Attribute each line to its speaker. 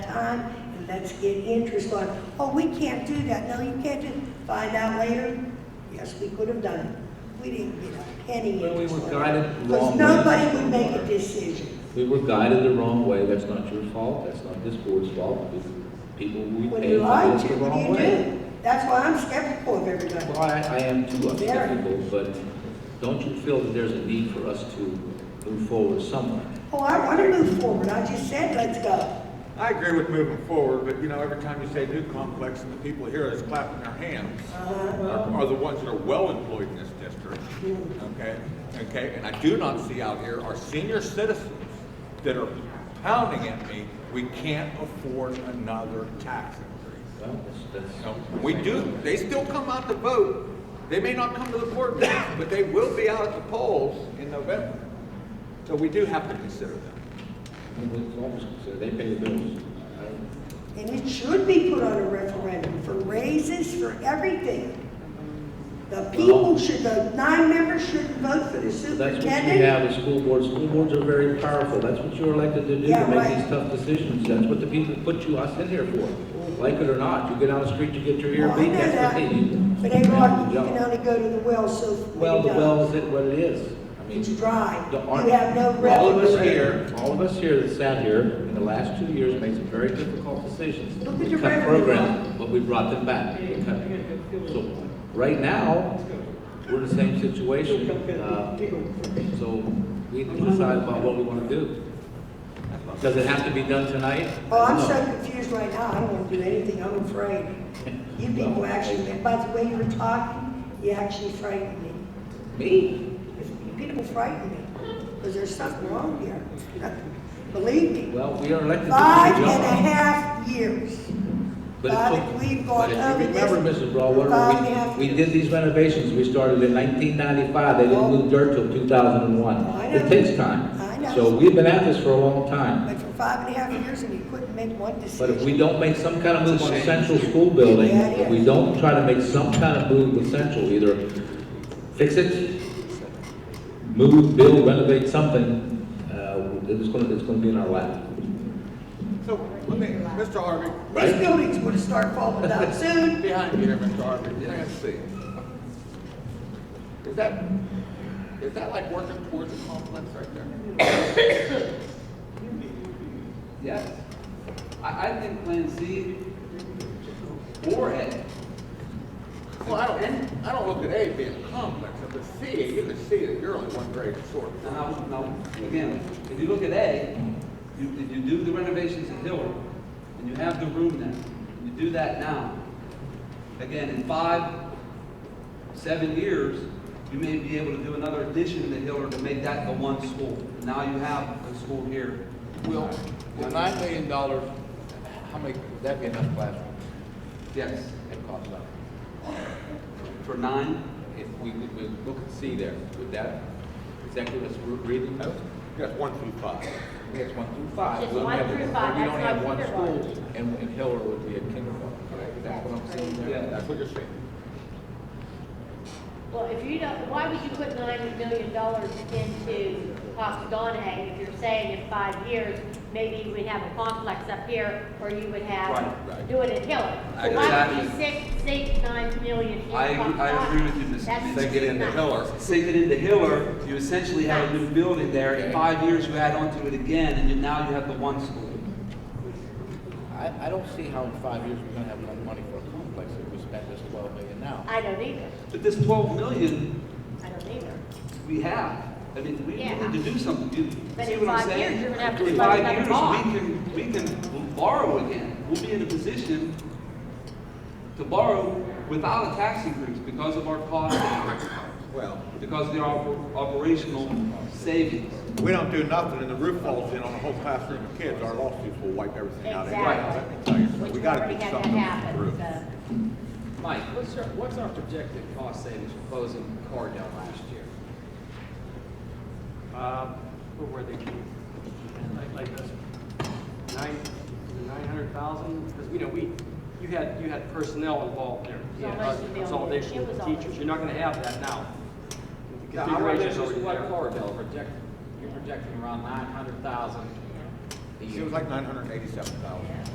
Speaker 1: time, and let's get interest on, oh, we can't do that, no, you can't do, find out later, yes, we could have done it. We didn't get a penny
Speaker 2: Well, we
Speaker 1: interest
Speaker 2: were
Speaker 1: on it.
Speaker 2: guided wrong
Speaker 1: Because
Speaker 2: way.
Speaker 1: nobody would make a decision.
Speaker 2: We were guided the wrong way, that's not your fault, that's not this board's fault, It's people we
Speaker 1: When
Speaker 2: paid
Speaker 1: you
Speaker 2: for
Speaker 1: lie
Speaker 2: this
Speaker 1: to,
Speaker 2: the
Speaker 1: what
Speaker 2: wrong
Speaker 1: do you
Speaker 2: way.
Speaker 1: do? That's why I'm skeptical of everybody.
Speaker 2: Well, I, I am too, I'm
Speaker 1: Very.
Speaker 2: skeptical, but don't you feel that there's a need for us to move forward somewhere?
Speaker 1: Oh, I want to move forward, I just said, let's go.
Speaker 3: I agree with moving forward, but you know, every time you say new complex and the people here is clapping their hands
Speaker 1: Uh-huh.
Speaker 3: are are the ones that are well employed in this district, okay? Okay, and I do not see out here our senior citizens that are pounding at me, we can't afford another tax increase.
Speaker 2: Well, that's, that's.
Speaker 3: No, We do, they still come out to vote. They may not come to the board meeting, but they will be out at the polls in November. So we do have to consider them.
Speaker 2: It's always considered, they pay the bills. I don't-
Speaker 1: And it should be put on a referendum for raises, for everything. The people should, the nine members shouldn't vote for the
Speaker 2: That's what you
Speaker 1: superintendent.
Speaker 2: have, the school boards, school boards are very powerful, that's what you're elected to do,
Speaker 1: Yeah,
Speaker 2: to make
Speaker 1: right.
Speaker 2: these tough decisions, that's what the people put you, us in here for. Like it or not, you get on the street, you get your ear
Speaker 1: Well, I
Speaker 2: beat,
Speaker 1: know
Speaker 2: that's
Speaker 1: that,
Speaker 2: the thing.
Speaker 1: But everyone,
Speaker 2: Good
Speaker 1: you
Speaker 2: job.
Speaker 1: can only go to the well so many
Speaker 2: Well, the
Speaker 1: times.
Speaker 2: well is it what it is. I mean,
Speaker 1: It's dry.
Speaker 2: the ar-
Speaker 1: You have no
Speaker 2: All of us
Speaker 1: revenue.
Speaker 2: here, all of us here that sat here in the last two years made some very difficult decisions.
Speaker 1: Look at
Speaker 2: We
Speaker 1: your
Speaker 2: cut
Speaker 1: revenue.
Speaker 2: programs, But we brought them back. We cut them. So, right now, we're in the same situation. Uh, So, we need to decide about what we want to do. Does it have to be done tonight?
Speaker 1: Oh, I'm so
Speaker 2: No.
Speaker 1: confused right now, I don't want to do anything, I'm afraid. You people actually, by the way you were talking, you actually frightened me.
Speaker 2: Me?
Speaker 1: People frighten me, because there's something wrong here. Believe me.
Speaker 2: Well, we are elected to do the
Speaker 1: Five and a
Speaker 2: job.
Speaker 1: half years.
Speaker 2: But it
Speaker 1: But
Speaker 2: took-
Speaker 1: we've gone
Speaker 2: but if
Speaker 1: over
Speaker 2: you Remember,
Speaker 1: this
Speaker 2: Mrs.
Speaker 1: five and a
Speaker 2: Broadwater,
Speaker 1: half
Speaker 2: we, we did these renovations, we started in nineteen ninety-five, they didn't move dirt till two thousand and one.
Speaker 1: I know.
Speaker 2: It takes time.
Speaker 1: I know.
Speaker 2: So we've been at this for a long time,
Speaker 1: But for five and a half years and you couldn't make one
Speaker 2: but if we
Speaker 1: decision.
Speaker 2: don't make some kind of move on Central School Building,
Speaker 1: Yeah, it
Speaker 2: if we
Speaker 1: is.
Speaker 2: don't try to make some kind of move with Central, either fix it, move, build, renovate something, uh, it's gonna, it's gonna be in our lap.
Speaker 3: So let me, Mr. Harvey,
Speaker 1: These buildings would start falling down soon.
Speaker 3: behind you here, Mr. Harvey, let's see. Is that, is that like working towards a complex right there?
Speaker 4: Yes. I, I think Plan C or A.
Speaker 3: Well, I don't, I don't look at A being a complex, but C, you can see that you're only one grade short.
Speaker 4: Now, now, again, if you look at A, you, if you do the renovations at Hillary, and you have the room there, and you do that now, again, in five, seven years, you may be able to do another addition to Hillary to make that the one school. Now you have a school here.
Speaker 3: Will, will nine million dollars, how many, would that be enough classrooms
Speaker 4: Yes,
Speaker 3: and cost that?
Speaker 4: for nine,
Speaker 2: If we, we look and see there, with that, exactly what's reading?
Speaker 3: Yes, one through five.
Speaker 2: It's one through five.
Speaker 5: Just
Speaker 2: We only
Speaker 5: one
Speaker 2: have-
Speaker 5: through five,
Speaker 2: We only
Speaker 5: that's
Speaker 2: have
Speaker 5: not
Speaker 2: one
Speaker 5: kindergarten.
Speaker 2: school, and, and Hiller would be a kindergarten, correct? That's what I'm saying there.
Speaker 4: Yeah.
Speaker 3: That's what you're saying.
Speaker 5: Well, if you don't, why would you put nine million dollars into Costa if you're saying in five years, maybe you would have a complex up here, or you would
Speaker 4: Right,
Speaker 5: have,
Speaker 3: right.
Speaker 5: do it in Hiller?
Speaker 4: I-
Speaker 5: So Why would you
Speaker 4: exactly.
Speaker 5: sink, sink nine million in
Speaker 4: I agree- I agree with you, Mrs.
Speaker 5: Costa That's
Speaker 4: Sink
Speaker 3: it into
Speaker 5: nuts.
Speaker 3: Hiller.
Speaker 4: sink it into Hiller, you essentially have a new building there. In five years, you add onto it again, and you- now you have the one school.
Speaker 6: I, I don't see how in five years we're gonna have enough money for a complex if we spend this twelve million now.
Speaker 5: I don't either,
Speaker 4: But this 12 million,
Speaker 5: I don't either.
Speaker 4: we have. I mean, we we need to do something. You
Speaker 5: But
Speaker 4: see
Speaker 5: in
Speaker 4: what I'm
Speaker 5: five years,
Speaker 4: saying?
Speaker 5: you're gonna have to
Speaker 4: In
Speaker 5: fund
Speaker 4: five
Speaker 5: another
Speaker 4: years,
Speaker 5: bond.
Speaker 4: we can, we can borrow again. We'll be in a position to borrow without a tax increase because of our cost,
Speaker 3: Well,
Speaker 4: because of the op- operational savings.
Speaker 3: we don't do nothing and the roof falls in on a whole classroom of kids, our lawsuits will wipe everything out. anyway,
Speaker 5: Exactly.
Speaker 3: let me tell you. So
Speaker 5: Which
Speaker 3: We
Speaker 5: we
Speaker 3: gotta
Speaker 5: already
Speaker 3: get
Speaker 5: had that
Speaker 3: something
Speaker 5: happen,
Speaker 3: through.
Speaker 5: so.
Speaker 7: Mike, what's our, what's our projected cost savings from closing Cardell last year?
Speaker 8: Uh, What were they? Like, like this, nine, nine hundred thousand? Because, you know, we, you had, you had personnel involved there. You had
Speaker 5: Consolidation
Speaker 8: us-
Speaker 5: bill.
Speaker 8: Consolidation
Speaker 5: It was
Speaker 8: of
Speaker 5: all-
Speaker 8: teachers. You're not gonna have that now. The
Speaker 7: Yeah, I
Speaker 8: configuration's
Speaker 7: read just
Speaker 8: already
Speaker 7: what
Speaker 8: there.
Speaker 7: Cardell projected, you're projecting around nine hundred thousand a
Speaker 3: It
Speaker 7: year.
Speaker 3: was like nine hundred and eighty-seven thousand.